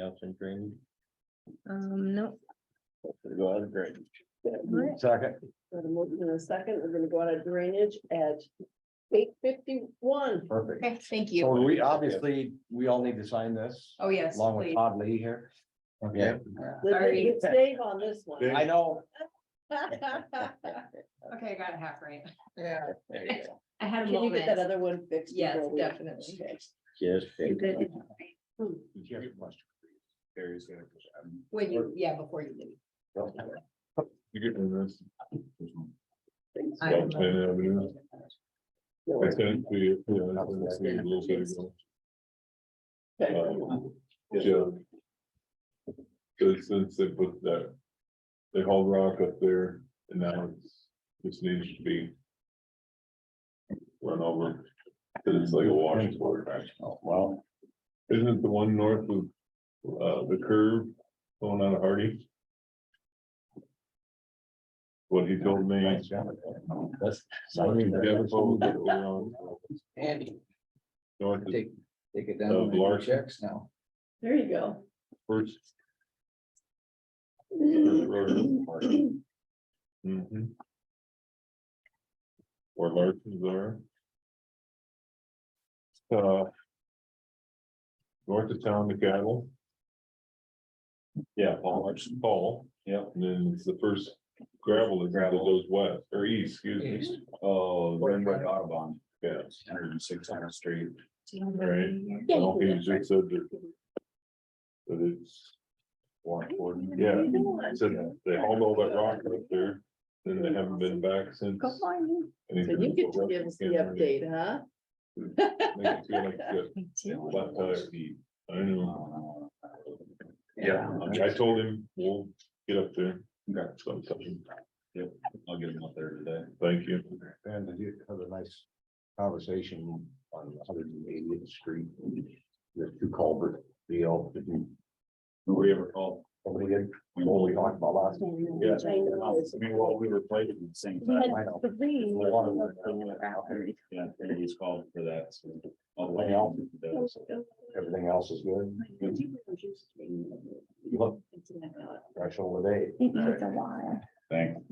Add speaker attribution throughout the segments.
Speaker 1: else in drainage?
Speaker 2: Um, no,
Speaker 1: Go out of drainage.
Speaker 2: Alright.
Speaker 3: Second.
Speaker 4: Got a motion in a second. We're gonna go out of drainage at eight fifty-one.
Speaker 3: Perfect.
Speaker 2: okay, thank
Speaker 3: So
Speaker 2: you.
Speaker 3: we obviously, we all need to sign this
Speaker 2: Oh, yes,
Speaker 3: along with
Speaker 2: please.
Speaker 3: Todd Lee here.
Speaker 1: Okay.
Speaker 2: Sorry.
Speaker 4: It's safe on this one.
Speaker 1: Yeah.
Speaker 3: I know,
Speaker 2: Okay, I got it half right.
Speaker 4: Yeah.
Speaker 1: There you go.
Speaker 2: I had a
Speaker 4: Can you get that
Speaker 2: moment.
Speaker 4: other one fixed?
Speaker 2: Yes,
Speaker 4: before we-
Speaker 2: definitely.
Speaker 4: Okay.
Speaker 1: Just.
Speaker 2: You did.
Speaker 4: Hmm.
Speaker 3: Did you have a question?
Speaker 5: Barry's gonna push out.
Speaker 2: When you, yeah, before you leave.
Speaker 5: You're getting this.
Speaker 2: I don't
Speaker 5: Yeah, yeah, we do. I sent to you, yeah, I sent to you a little bit ago.
Speaker 4: Okay.
Speaker 5: Yeah. Since, since they put that, they hauled rock up there and now it's, this needs to be. Run over, cause it's like a washing board,
Speaker 1: Oh, Well,
Speaker 5: isn't it the one north of, uh, the curve going out of Hardy? What he told me.
Speaker 1: nice job. That's-
Speaker 5: I mean, Devon's over there, we're on
Speaker 6: Andy,
Speaker 5: north of
Speaker 6: take, take it
Speaker 5: Uh,
Speaker 6: down, to the
Speaker 5: Larson.
Speaker 6: checks now.
Speaker 4: There you go.
Speaker 5: First. Mhm. Mm-hmm. Or Larson's are. Uh. North of town, the cattle. Yeah, Paul Larson, Paul.
Speaker 1: Yeah.
Speaker 5: And then it's the first gravel that gravel goes west or east, excuse me.
Speaker 1: Oh, Railroad Audubon,
Speaker 5: Yeah.
Speaker 1: hundred and six hundred street.
Speaker 5: Right. Well, he just said that. That it's.
Speaker 1: Warren Gordon.
Speaker 5: Yeah, so they hauled all that rock up there, then they haven't been back since.
Speaker 2: Go find me.
Speaker 5: and he's
Speaker 4: So you
Speaker 5: gonna
Speaker 4: get
Speaker 5: go
Speaker 4: to
Speaker 5: up
Speaker 4: give us the
Speaker 5: again,
Speaker 4: update, huh?
Speaker 5: make it feel like the
Speaker 2: Me too.
Speaker 5: flat tire. I know,
Speaker 3: Uh,
Speaker 1: Yeah,
Speaker 5: I told him, we'll get up there.
Speaker 1: Okay.
Speaker 5: sometime.
Speaker 1: I'll get him up there today.
Speaker 5: Thank you.
Speaker 3: and you had a nice conversation on hundred and eightieth street. The two culvert deal. Did you-
Speaker 1: Nobody ever called.
Speaker 3: Nobody did, we only talked about last.
Speaker 1: Yeah.
Speaker 4: I know.
Speaker 1: I mean, while we were playing at the same time.
Speaker 3: I know.
Speaker 1: Yeah, and he's called for that. so I'll
Speaker 3: Anything
Speaker 1: wait
Speaker 3: else?
Speaker 1: on those.
Speaker 3: Everything else is good. You look fresh over there.
Speaker 1: Thanks.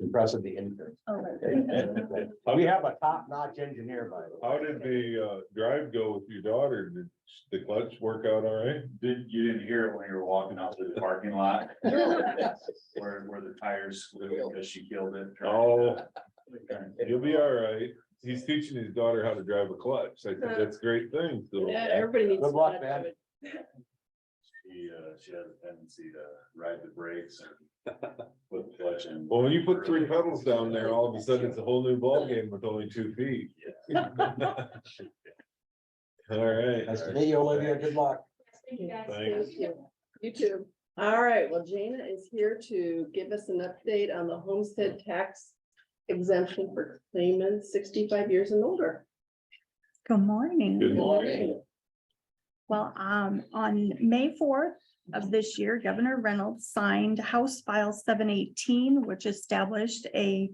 Speaker 3: Impressive the intern.
Speaker 7: Oh,
Speaker 3: We have a top notch engineer, by the way.
Speaker 5: How did the uh drive go with your daughter? Did the clutch work out all right?
Speaker 1: Did, you didn't hear it when you were walking out through the parking lot? Where, where the tires flew because she killed it.
Speaker 5: Oh, you'll be all right. He's teaching his daughter how to drive a clutch. I think that's a great thing. So
Speaker 4: Yeah, everybody needs.
Speaker 3: Good
Speaker 4: to
Speaker 3: luck,
Speaker 4: watch
Speaker 3: man.
Speaker 4: it.
Speaker 1: She, uh, she has a tendency to ride the brakes and put the clutch in.
Speaker 5: Well, when you put three pedals down there, all of a sudden it's a whole new ballgame with only two feet. All right.
Speaker 3: Nice to meet you, Olivia. Good luck.
Speaker 5: Thanks.
Speaker 4: Thank you. You too. All right, well, Jana is here to give us an update on the homestead tax exemption for claimants sixty-five years and older.
Speaker 7: Good morning.
Speaker 5: Good morning.
Speaker 7: Well, um, on May fourth of this year, Governor Reynolds signed House File seven eighteen, which established a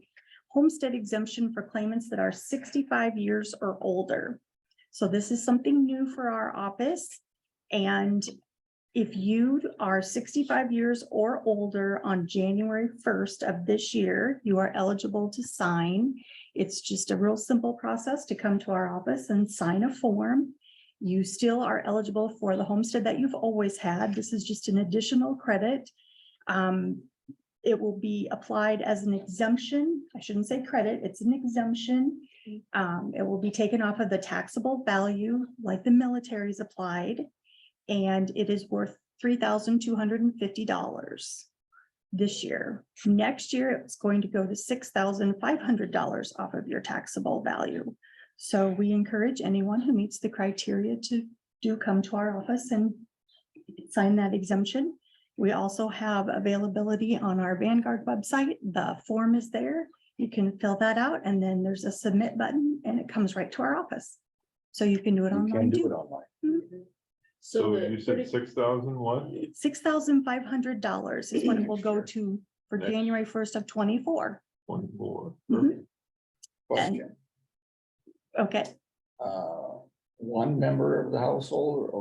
Speaker 7: homestead exemption for claimants that are sixty-five years or older. So this is something new for our office. And if you are sixty-five years or older on January first of this year, you are eligible to sign. It's just a real simple process to come to our office and sign a form. You still are eligible for the homestead that you've always had. This is just an additional credit. Um, it will be applied as an exemption. I shouldn't say credit, it's an exemption. Um, it will be taken off of the taxable value like the military's applied. And it is worth three thousand two hundred and fifty dollars this year. Next year, it's going to go to six thousand five hundred dollars off of your taxable value. So we encourage anyone who meets the criteria to do come to our office and sign that exemption. We also have availability on our Vanguard website. The form is there. You can fill that out and then there's a submit button and it comes right to our office. So you can do it
Speaker 3: You
Speaker 7: online
Speaker 3: can do it
Speaker 7: too.
Speaker 3: online.
Speaker 4: So
Speaker 5: So
Speaker 4: the
Speaker 5: you said
Speaker 4: pretty-
Speaker 5: six thousand what?
Speaker 7: Six thousand five hundred dollars is what it will go to for
Speaker 5: Next.
Speaker 7: January first of twenty-four.
Speaker 5: One four.
Speaker 4: Mm-hmm.
Speaker 7: Mhm.
Speaker 6: Question,
Speaker 7: Okay.
Speaker 6: uh, one member of the household or